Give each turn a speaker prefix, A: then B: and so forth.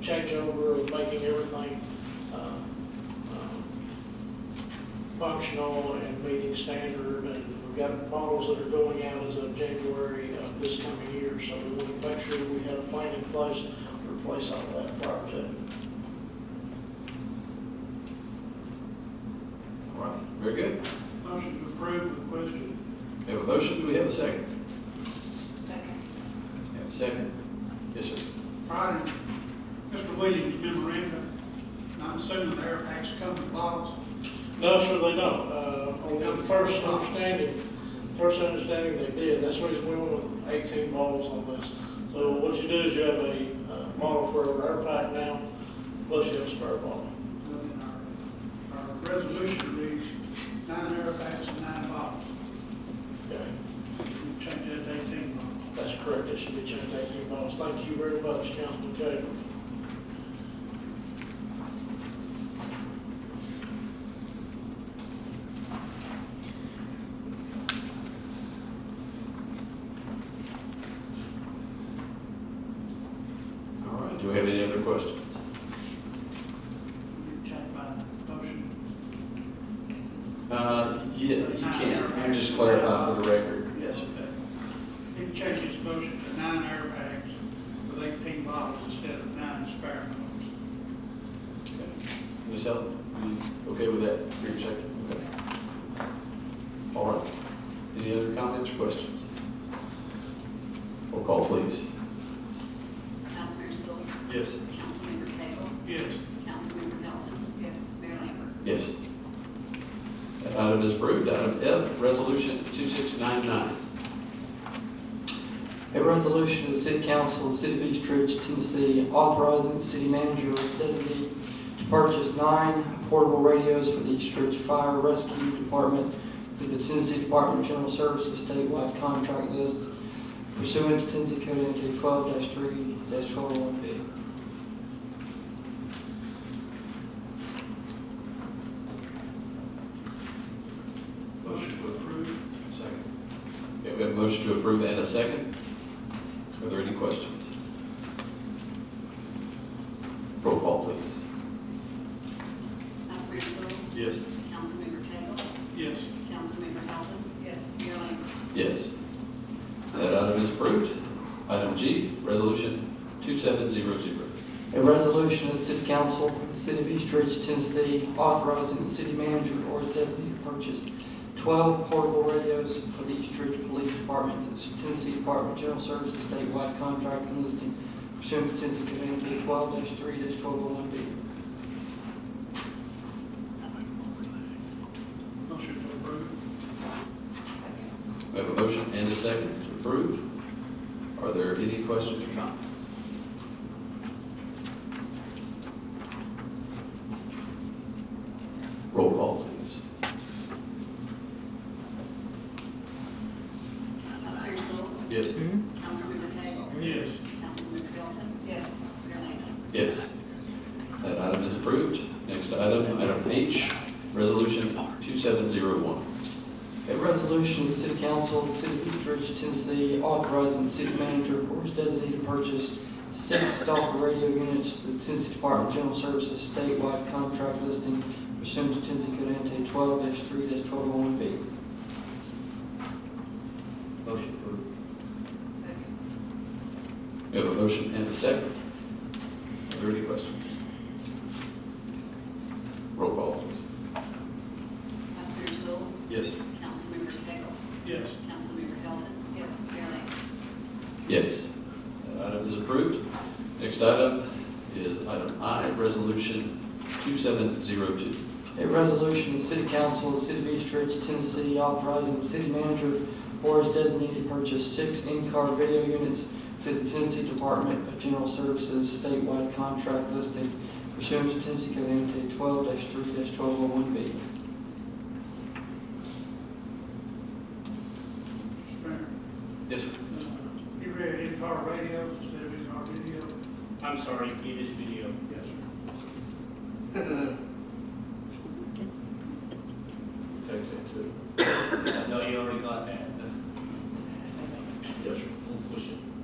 A: changeover, of um, making everything um, um, functional and meeting standard. And we've got models that are going out as of January of this coming year. So we want to make sure we have a plan in place to replace all that prior to.
B: All right, very good.
C: Motion to approve with question.
B: We have a motion, do we have a second?
D: Second.
B: We have a second? Yes, sir.
C: Prior to Mr. Williams' memorandum, I'm assuming the air packs come in bottles.
A: No, sir, they don't. Uh, On the first understanding, first understanding they did, that's the reason we went with eighteen models on this. So what you do is you have a uh, model for every air pack now, plus you have a spare model.
C: And then Our our resolution reads nine air packs and nine bottles.
A: Okay,
C: We Change that to eighteen bottles.
A: that's correct, it should be changed to eighteen models. Thank you very much, Councilman Taylor.
B: All right, do we have any other questions?
C: We Change by motion.
B: Uh, yeah, you can, just clarify for the record. Yes, sir.
C: Okay. He changes motion to nine air packs with eighteen bottles instead of nine spare bottles.
B: Okay. Ms. Helen, you okay with that for your second? Okay. All right. Any other comments or questions? Roll call, please.
D: Councilmember Stoll?
B: Yes.
D: Councilmember Cagle?
C: Yes.
D: Councilmember Hilton? Yes. Mayor Lambert?
B: Yes. That item is approved. Item F, Resolution 2699.
E: A resolution of the City Council of the City of East Ridge, Tennessee, authorizing the city manager to designate to purchase nine portable radios for the East Ridge Fire Rescue Department through the Tennessee Department of General Services statewide contract list pursuant to Tennessee Code NJ twelve three twelve one B.
C: Motion to approve.
B: Second. Okay, we have a motion to approve and a second. Are there any questions? Roll call, please.
D: Councilmember Stoll?
B: Yes.
D: Councilmember Cagle?
C: Yes.
D: Councilmember Hilton? Yes. Mayor Lambert?
B: Yes. That item is approved. Item G, Resolution 2700.
E: A resolution of the City Council, of the City of East Ridge, Tennessee, authorizing the city manager or his designee to purchase twelve portable radios for the East Ridge Police Department, the Tennessee Department of General Services statewide contract and listing pursuant to Tennessee Code NJ twelve three twelve oh one B.
C: Motion to approve.
D: Second.
B: We have a motion and a second to approve. Are there any questions or comments? Roll call, please.
D: Councilmember Stoll?
B: Yes.
D: Councilmember Cagle?
C: Yes.
D: Councilmember Hilton? Yes. Mayor Lambert?
B: Yes. That item is approved. Next item, item H, Resolution 2701.
E: A resolution of the City Council of the City of East Ridge, Tennessee, authorizing the city manager or his designee to purchase six stalker radio units to the Tennessee Department of General Services statewide contract listing pursuant to Tennessee Code Annotated twelve three twelve oh one B.
B: Motion approved.
D: Second.
B: We have a motion and a second. Are there any questions? Roll call, please.
D: Councilmember Stoll?
B: Yes.
D: Councilmember Cagle?
C: Yes.
D: Councilmember Hilton? Yes. Mayor Lambert?
B: Yes. That item is approved. Next item is item I, Resolution 2702.
E: A resolution of the City Council of the City of East Ridge, Tennessee, authorizing the city manager or his designee to purchase six in-car video units to the Tennessee Department of General Services statewide contract listing pursuant to Tennessee Code Annotated twelve three twelve oh one B.
C: Mr. Mayor.
B: Yes, sir.
C: You read in-car radios instead of in-car video?
F: I'm sorry, it is video.
C: Yes, sir.
B: Take that too.
F: No, you already got that.
B: Yes, sir.